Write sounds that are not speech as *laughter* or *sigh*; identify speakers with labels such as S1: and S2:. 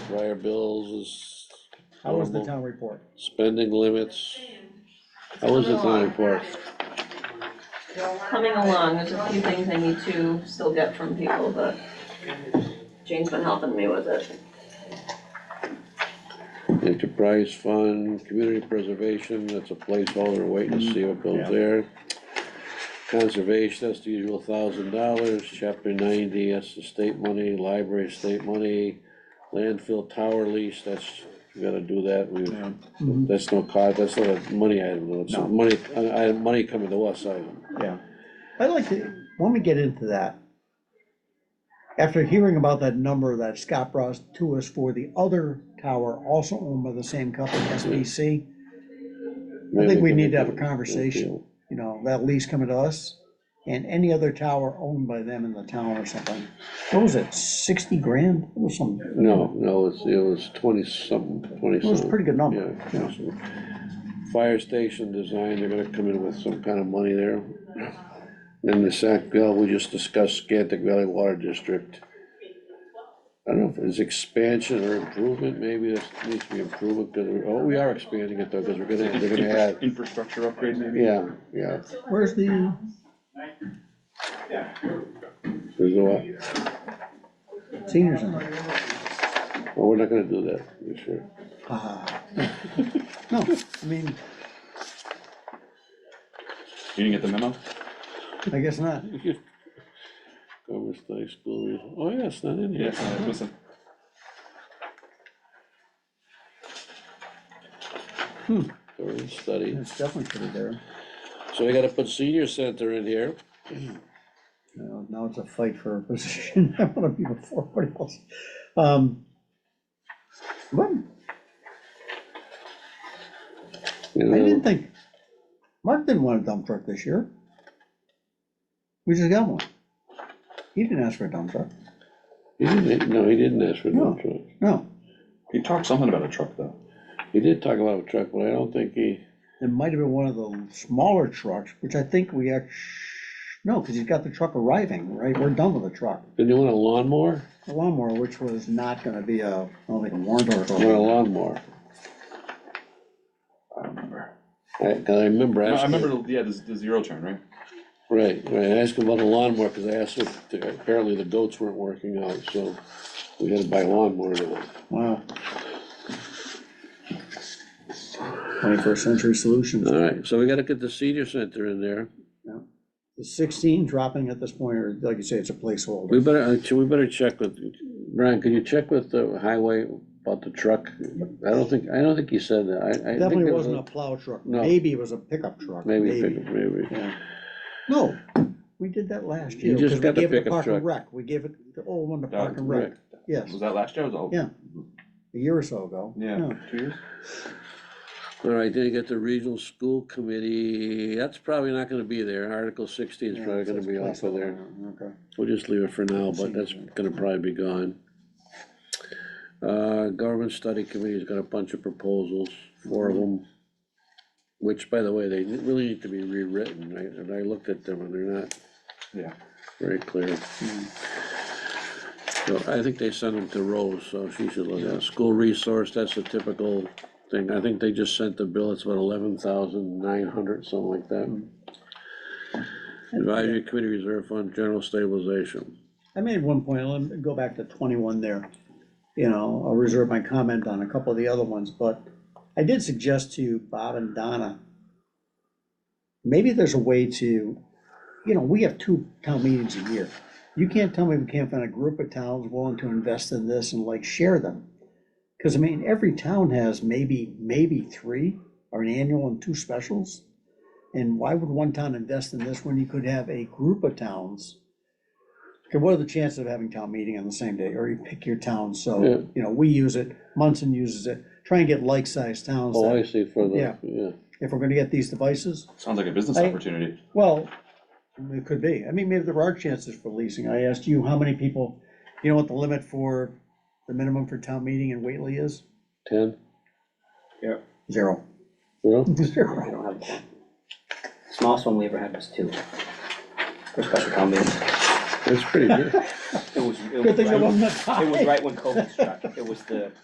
S1: prior bills is.
S2: How was the
S1: normal.
S2: town report?
S1: Spending limits. How was the town report?
S3: Coming along, there's a few things I need to still get from people, but Jane's been helping me with it.
S1: Enterprise fund, community preservation, that's a placeholder, waiting to see what goes
S2: Mm-hmm. Yeah.
S1: there. Conservation, that's the usual thousand dollars, chapter ninety, that's the state money, library state money, landfill tower lease, that's, we gotta do that, we,
S2: Mhm.
S1: that's no cost, that's not a money item, though, it's a
S2: No.
S1: money, I, I, money coming to us item.
S2: Yeah, I'd like to, when we get into that, after hearing about that number that Scott brought to us for the other tower, also owned by the same company, SBC, I think we need to have a conversation, you know, that lease coming to us, and any other tower owned by them in the town or something. What was it, sixty grand or something?
S1: No, no, it's, it was twenty something, twenty
S2: It was a pretty good number.
S1: Yeah, yeah, so Fire station design, they're gonna come in with some kind of money there. Then the Sac Bill, we just discussed Scantic Valley Water District. I don't know if it's expansion or improvement, maybe this needs to be improvement, because, oh, we are expanding it though, because we're gonna, they're gonna
S4: Infra-
S1: add,
S4: Infrastructure upgrade maybe?
S1: yeah, yeah,
S2: Where's the,
S1: there's no,
S2: senior center?
S1: well, we're not gonna do that this year.
S2: Ah. *laughs* No, I mean,
S4: You didn't get the memo?
S2: I guess not.
S1: Commerce High School, oh, yeah, it's not in here.
S4: Yes, I was missing.
S1: Thorough Study.
S2: It's definitely pretty there.
S1: So we gotta put senior center in here.
S2: Now, now it's a fight for a *laughs* position. I wanna be before everybody else. Um, What?
S1: you
S2: I
S1: know.
S2: didn't think, Mark didn't want a dump truck this year. We just got one. He didn't ask for a dump truck.
S1: He didn't, no, he didn't ask for no
S2: No.
S1: truck.
S2: No,
S4: You talked something about a truck though.
S1: He did talk about a truck, but I don't think he,
S2: it might have been one of the smaller trucks, which I think we act, no, because he's got the truck arriving, right? We're done with the truck.
S1: did he want a lawnmower?
S2: The lawnmower, which was not gonna be a, I don't think a warrant
S1: He wanted a
S2: article.
S1: lawnmower.
S4: I don't remember.
S1: I, 'cause I remember
S4: No, I
S1: asking,
S4: remember, the- yeah, the, the zero turn, right?
S1: right, right, I asked him about a lawnmower, cause I asked if, the- apparently the goats weren't working out, so we had to buy a lawnmower now.
S2: Wow. Twenty-first century solutions.
S1: Alright, so we gotta get the senior center in there.
S2: Is sixteen dropping at this point, or like you say, it's a placeholder?
S1: We better, uh, should we better check with, Brian, could you check with the highway about the truck? I don't think, I don't think he said that, I, I. think
S2: Definitely
S1: it
S2: wasn't a plow truck,
S1: No.
S2: maybe it was a pickup truck,
S1: Maybe, a
S2: maybe.
S1: pickup, maybe.
S2: Yeah. No, we did that last
S1: You
S2: year,
S1: just
S2: because we
S1: got the
S2: gave it to
S1: pickup
S2: Park and
S1: truck.
S2: Rec, we gave it, the old one to
S4: That
S2: Park and Rec, yes,
S4: Was that last year? It was all?
S2: Yeah. a year or so ago.
S4: Yeah, two years?
S1: All right, then you get the regional school committee, that's probably not gonna be there, Article sixteen is
S2: Yeah,
S1: probably
S2: so
S1: gonna
S2: it's
S1: be off of there,
S2: placeholder, Okay.
S1: we'll just leave it for now, but that's gonna probably be gone. Uh, government study committee's got a bunch of proposals, four of them, which, by the way, they really need to be rewritten, I, and I looked at them and they're not
S4: Yeah.
S1: very clear.
S2: Hmm.
S1: So I think they sent them to Rose, so she should look at it. School resource, that's a typical thing. I think they just sent the bill, it's about eleven thousand nine hundred, something like that.
S2: Hmm.
S1: Advisory Committee Reserve Fund, general stabilization.
S2: I made one point, let me go back to twenty-one there. You know, I'll reserve my comment on a couple of the other ones, but I did suggest to Bob and Donna, maybe there's a way to, you know, we have two town meetings a year. You can't tell me we can't find a group of towns willing to invest in this and like share them. Cause I mean, every town has maybe, maybe three, or an annual and two specials. And why would one town invest in this when you could have a group of towns? Okay, what are the chances of having town meeting on the same day, or you pick your town,
S1: Yeah.
S2: so, you know, we use it, Munson uses it, try and get like-sized towns.
S1: Oh,
S2: that-
S1: I see, for the,
S2: Yeah.
S1: yeah.
S2: if we're gonna get these devices?
S4: Sounds like a business
S2: I-
S4: opportunity.
S2: Well, it could be. I mean, maybe there are chances for leasing. I asked you how many people, you know what the limit for, the minimum for town meeting in Whately is?
S1: Ten,
S2: Zero.
S1: well,
S2: *laughs*
S5: I
S2: Zero.
S5: don't have one. Smallest one we ever had was two. For special town meeting.
S1: that's pretty good.
S5: It was, it
S2: Good
S5: was
S2: thing I
S5: right,
S2: wasn't a tie.
S5: it was right when COVID struck. It was the